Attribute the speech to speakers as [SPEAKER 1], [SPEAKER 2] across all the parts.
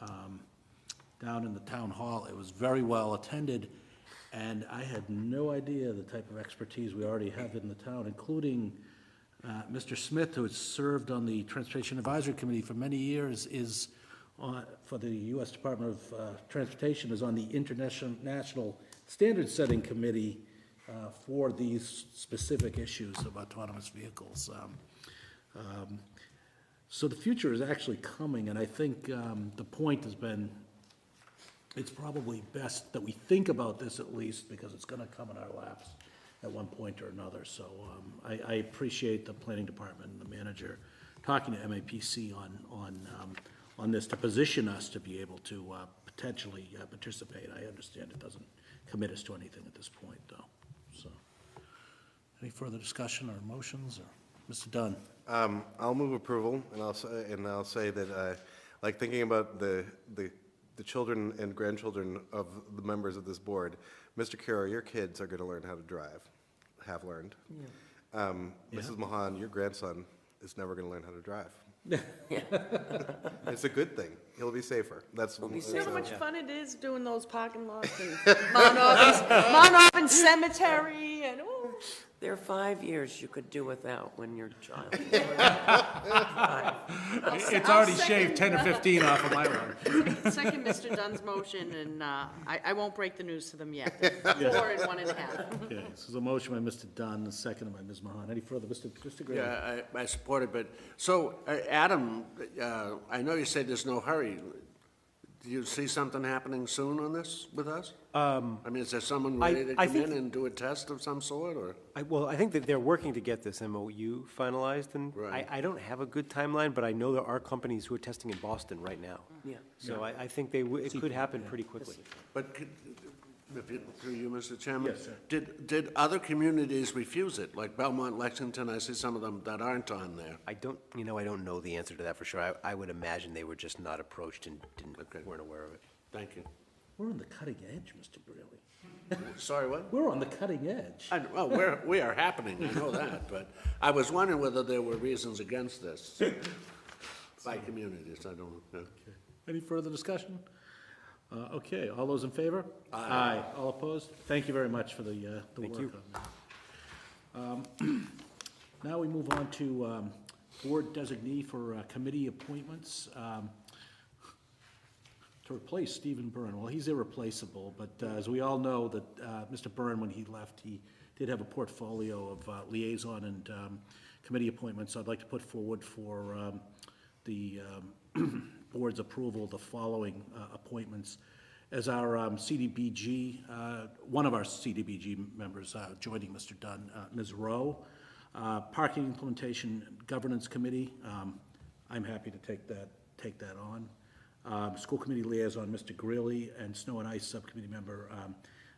[SPEAKER 1] um, down in the town hall. It was very well attended, and I had no idea the type of expertise we already have in the town, including uh, Mr. Smith, who has served on the Transportation Advisory Committee for many years, is on, for the U.S. Department of uh, Transportation, is on the International National Standard Setting Committee uh, for these specific issues of autonomous vehicles. Um, um, So the future is actually coming, and I think um, the point has been, it's probably best that we think about this at least, because it's gonna come in our laps at one point or another. So um, I, I appreciate the planning department and the manager talking to MAPC on, on, um, on this to position us to be able to uh, potentially uh, participate. I understand it doesn't commit us to anything at this point, though, so. Any further discussion or motions, or, Mr. Dunn?
[SPEAKER 2] Um, I'll move approval, and I'll, say- and I'll say that, uh, like, thinking about the, the, the children and grandchildren of the members of this board, Mr. Carroll, your kids are gonna learn how to drive, have learned. Um, Mrs. Mahan, your grandson is never gonna learn how to drive. It's a good thing. He'll be safer. That's.
[SPEAKER 3] You know how much fun it is doing those parking lots and Mount Auburn, Mount Auburn Cemetery and, ooh.
[SPEAKER 4] There are five years you could do without when you're a child.
[SPEAKER 3] It's already shaved
[SPEAKER 5] ten or fifteen off of my run.
[SPEAKER 3] Second Mr. Dunn's motion, and uh, I, I won't break the news to them yet. Four and one and a half.
[SPEAKER 1] Okay, so there's a motion by Mr. Dunn, a second by Ms. Mahan. Any further, Mr. Mr. Graham?
[SPEAKER 5] Yeah, I, I support it, but, so, uh, Adam, uh, I know you said there's no hurry. Do you see something happening soon on this with us? Um. I mean, is there someone
[SPEAKER 6] I-
[SPEAKER 5] ready to
[SPEAKER 6] I
[SPEAKER 5] come
[SPEAKER 6] think-
[SPEAKER 5] in and do a test of some sort, or?
[SPEAKER 6] I, well, I think that they're working to get this MOU finalized, and I,
[SPEAKER 5] Right.
[SPEAKER 6] I don't have a good timeline, but I know there are companies who are testing in Boston right now.
[SPEAKER 4] Yeah.
[SPEAKER 6] So I, I think they, w- it could happen pretty quickly.
[SPEAKER 5] But could, if you- through you, Mr. Chairman? Did, did other communities refuse it, like Belmont, Lexington, I see some of them that aren't on there.
[SPEAKER 6] I don't, you know, I don't know the answer to that for sure. I, I would imagine they were just not approached and didn't, weren't aware of it.
[SPEAKER 5] Thank you.
[SPEAKER 1] We're on the cutting edge, Mr. Brealey.
[SPEAKER 5] Sorry, what?
[SPEAKER 1] We're on the cutting edge.
[SPEAKER 5] I, well, we're, we are happening, I know that, but I was wondering whether there were reasons against this by communities, I don't know.
[SPEAKER 1] Any further discussion? Uh, Okay, all those in favor? Aye. All opposed? Thank you very much for the, uh, the work on that. Um, Now we move on to um, board designee for uh, committee appointments um, to replace Stephen Byrne. Well, he's irreplaceable, but uh, as we all know, that uh, Mr. Byrne, when he left, he did have a portfolio of uh, liaison and um, committee appointments. I'd like to put forward for um, the um, board's approval the following uh, appointments. As our um, CDBG, uh, one of our CDBG members uh, joining Mr. Dunn, uh, Ms. Rowe, uh, Parking Implementation Governance Committee, um, I'm happy to take that, take that on. Um, School Committee Liaison, Mr. Greeley, and Snow and Ice Subcommittee Member, um,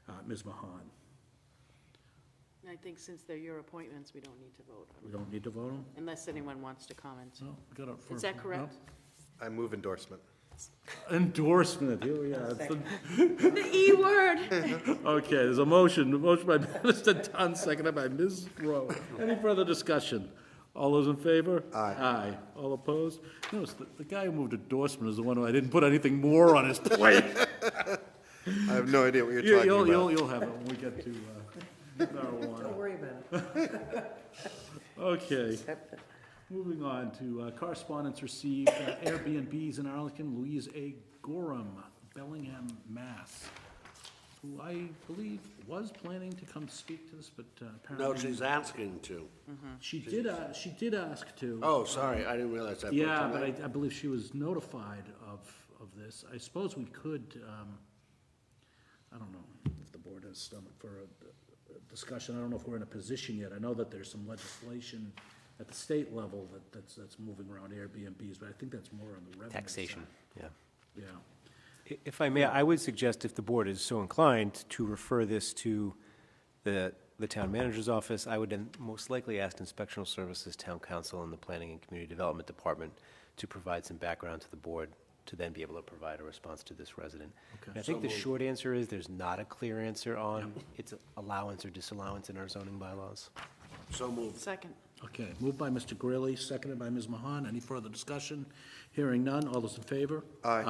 [SPEAKER 1] uh, Ms. Mahan.
[SPEAKER 3] I think since they're your appointments, we don't need to vote on it,
[SPEAKER 1] We don't need to vote on?
[SPEAKER 3] unless anyone wants to comment.
[SPEAKER 1] No, we got it for-
[SPEAKER 3] Is that
[SPEAKER 1] no?
[SPEAKER 3] correct?
[SPEAKER 2] I move endorsement.
[SPEAKER 1] Endorsement, here we are.
[SPEAKER 3] The E word.
[SPEAKER 1] Okay, there's a motion, a motion by Mr. Dunn, seconded by Ms. Rowe. Any further discussion? All those in favor? Aye. Aye. All opposed? Notice, the, the guy who moved endorsement is the one who I didn't put anything more on his plate.
[SPEAKER 2] I have no idea what you're
[SPEAKER 1] You-
[SPEAKER 2] talking
[SPEAKER 1] You'll,
[SPEAKER 2] about.
[SPEAKER 1] you'll, you'll have it when we get to uh, marijuana.
[SPEAKER 4] Don't worry about it.
[SPEAKER 1] Okay. Moving on to uh, correspondence received, uh, Airbnbs in Arlington, Louise A. Gorham, Bellingham, Mass., who I believe was planning to come speak to this, but uh,
[SPEAKER 5] No,
[SPEAKER 1] apparently.
[SPEAKER 5] she's asking to.
[SPEAKER 1] She did, uh, she did ask to.
[SPEAKER 5] Oh, sorry, I didn't realize that.
[SPEAKER 1] Yeah, but I, I believe she was notified of, of this. I suppose we could, um, I don't know if the board has stomach for a- a discussion. I don't know if we're in a position yet. I know that there's some legislation at the state level that, that's, that's moving around Airbnbs, but I think that's more on the revenue. side.
[SPEAKER 6] Taxation, yeah.
[SPEAKER 1] Yeah.
[SPEAKER 6] I- If I may, I would suggest if the board is so inclined to refer this to the, the town manager's office, I would then most likely ask inspectional services, town council, and the planning and community development department to provide some background to the board to then be able to provide a response to this resident. And I think the short answer is there's not a clear answer on its allowance or disallowance in our zoning bylaws.
[SPEAKER 5] So moved.
[SPEAKER 3] Second.
[SPEAKER 1] Okay, moved by Mr. Greeley, seconded by Ms. Mahan. Any further discussion? Hearing none. All those in favor?
[SPEAKER 2] Aye.